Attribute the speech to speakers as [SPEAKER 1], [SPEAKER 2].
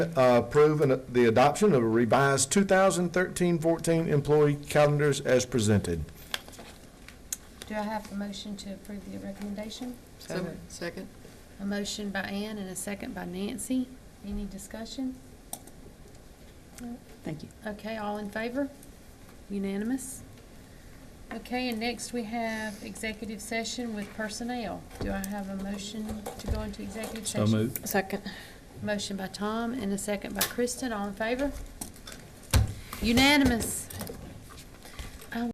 [SPEAKER 1] Uh, Approve an- the adoption of a revised 2013-14 employee calendars as presented.
[SPEAKER 2] Do I have a motion to approve the recommendation?
[SPEAKER 3] So moved. Second?
[SPEAKER 2] A motion by Ann and a second by Nancy. Any discussion?
[SPEAKER 4] Thank you.
[SPEAKER 2] Okay, all in favor? Unanimous? Okay, and next we have executive session with personnel. Do I have a motion to go into executive session?
[SPEAKER 4] Second.
[SPEAKER 2] Motion by Tom and a second by Kristen. All in favor? Unanimous.